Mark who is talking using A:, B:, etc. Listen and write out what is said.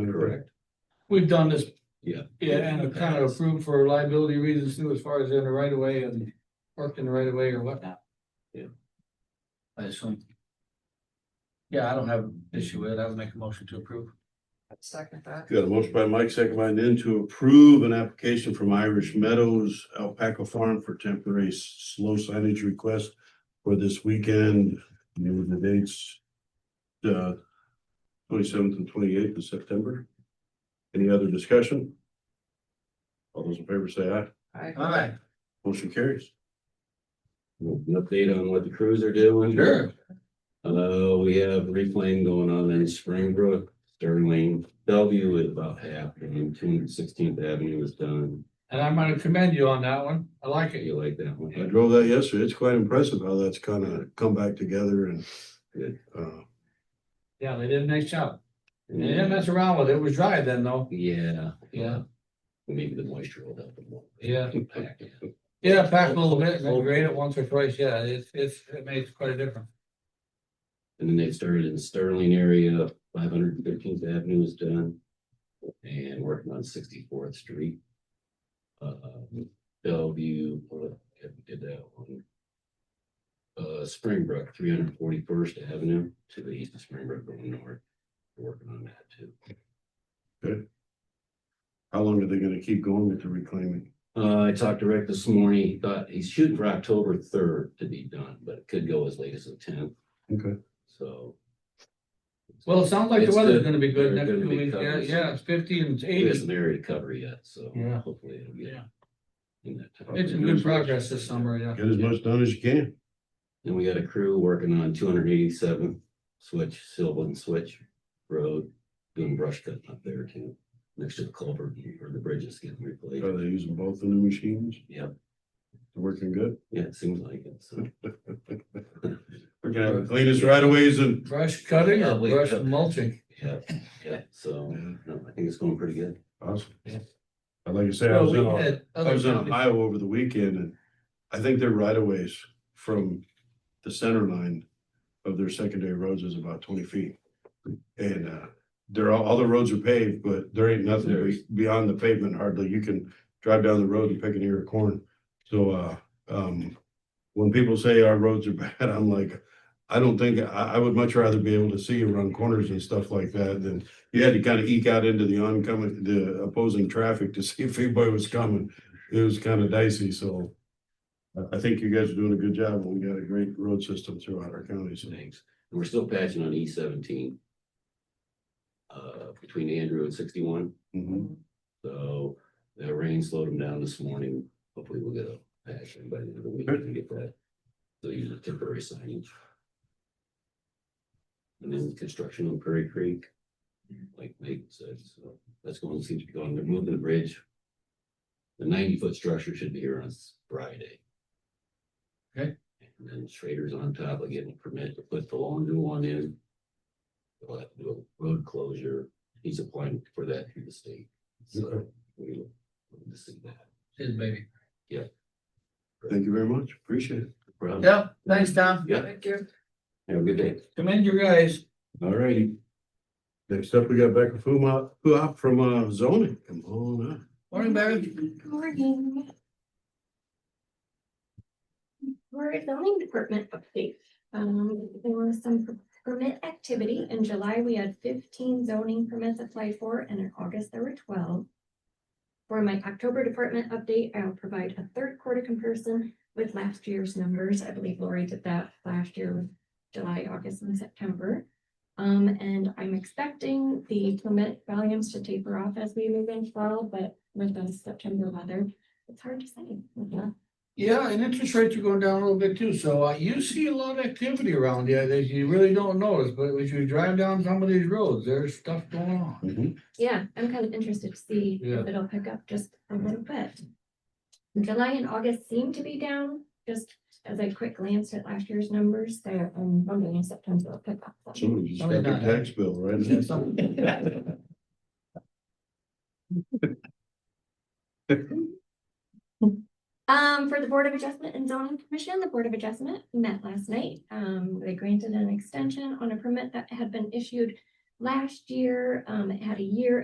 A: Correct.
B: We've done this.
A: Yeah.
B: Yeah, and have kind of approved for liability reasons too, as far as in the right of way and worked in the right of way or whatnot.
A: Yeah.
B: I assume. Yeah, I don't have an issue with it. I would make a motion to approve.
C: Second that.
A: Got a motion by Mike, second by Nan to approve an application from Irish Meadows Alpaca Farm for temporary s- slow signage request for this weekend, you know, the dates, uh, twenty-seventh and twenty-eighth of September. Any other discussion? All those in favor say aye.
C: I,
B: All right,
A: Motion carries.
D: An update on what the crews are doing.
B: sure.
D: Uh, we have reclaim going on in Springbrook, Sterling, Bellevue is about half, and two hundred sixteenth Avenue is done.
B: And I'm gonna commend you on that one. I like it.
D: You like that
A: I
D: one?
A: drove that yesterday. It's quite impressive how that's kind of come back together and uh,
B: Yeah, they did a nice job. And they didn't mess around with it. It was dry then though.
D: Yeah.
B: Yeah.
D: Maybe the moisture will help. a little bit.
B: Yeah.
D: Impact it.
B: Yeah, pack a little bit and then grade it once or twice. Yeah, it's, it's, it makes quite a difference.
D: And then they started in Sterling area, five hundred fifteenth Avenue is done. And working on sixty fourth Street. Uh, Bellevue, uh, did that one. Uh, Springbrook, three hundred forty first Avenue to the east of Springbrook going north. Working on that too.
A: how long are they going to keep going with the reclaiming?
D: Uh, I talked to Rick this morning, he thought he's shooting for October third to be done, but it could go as late as the tenth,
A: Okay.
D: so.
B: Well, it sounds like the
D: It's
B: weather's
D: good.
B: gonna be good
D: They're
B: next
D: gonna
B: two
D: be
B: weeks. Yeah,
D: covers.
B: yeah, it's fifty and
D: It
B: eighty.
D: isn't area to cover yet, so
B: Yeah.
D: hopefully it'll get.
B: Yeah.
D: in that time.
B: It's in good progress this summer, yeah.
A: Get as much done as you can.
D: And we got a crew working on two hundred eighty-seven switch, Sylvan Switch Road, doing brush cutting up there too. Next to the culvert where the bridge is getting
A: Are
D: replaced.
A: they Oh, using both of the machines?
D: Yep.
A: They're Working good?
D: Yeah, it seems like it, so.
A: We're gonna have the cleanest right of ways and.
B: Brush cutting
D: Yeah,
B: or
D: we-
B: brush mulching?
D: Yeah, yeah, so, no, I think it's going pretty good.
A: Awesome.
B: Yeah.
A: And like I say, I was in, a- I was in
B: Well,
A: Ohio over the weekend and I think their right of ways from the center line of their secondary roads is about twenty feet. And, uh, there are, all the roads are paved, but there ain't nothing be- beyond the pavement hardly. You can drive down the road and pick an ear of corn. So, uh, um, when people say our roads are bad, I'm like, I don't think, I, I would much rather be able to see you run corners and stuff like that than you had to kind of eke out into the oncoming, the opposing traffic to see if anybody was coming. It was kind of dicey, so. I, I think you guys are doing a good job. and We got a great road system throughout our county, so.
D: Thanks. And we're still patching on E seventeen. Uh, between Andrew and sixty-one,
A: mhm.
D: so the rain slowed them down this morning. Hopefully we'll get a patch by the end of the week and get that. So use a temporary signage. And then construction on Prairie Creek. Like Nate said, so that's going, seems to be going, they're moving the bridge. The ninety-foot structure should be here on Friday.
B: Okay.
D: And then Schrader's on top of getting permit to put the long new one in. We'll have to do a road closure. He's applying for that through the state. So we look look to see that.
B: His baby.
A: Thank you very much. Appreciate it.
D: Rob,
B: Yeah, thanks, Tom.
D: Yeah.
C: thank you.
D: Have a good day.
B: Commend you guys.
D: All righty.
A: Next up, we got Becca Fuma, Fuop from uh, zoning. Come on up.
B: Morning, Barry.
E: Morning. For a zoning department update, um, there was some permit activity. In July, we had fifteen zoning permits applied for, and in August, there were twelve. For my October department update, I'll provide a third quarter Um, comparison with last year's numbers. I believe Lori did that last year with July, August, and September. Um, and I'm expecting the permit volumes to taper off as we move in fall, but with the September weather, it's hard to say. Yeah.
B: Yeah, and interest rates are going down a little bit too, so uh, you see a lot of activity around here that you really don't notice, but as you drive down some of these roads, there's stuff going on.
D: Mm-hmm.
E: Yeah, I'm kind of interested to see
B: Yeah.
E: if it'll pick up just a little bit. July and August seem to be down, just as I quick glanced at last year's numbers, so I'm wondering if September will pick up. some.
A: Somebody just got their tax bill, right?
B: Is that something?
E: Um, for the Board of Adjustment and Zoning Commission, the Board of Adjustment met last night. Um, they granted an extension on a permit that had been issued Last year, um, it had a year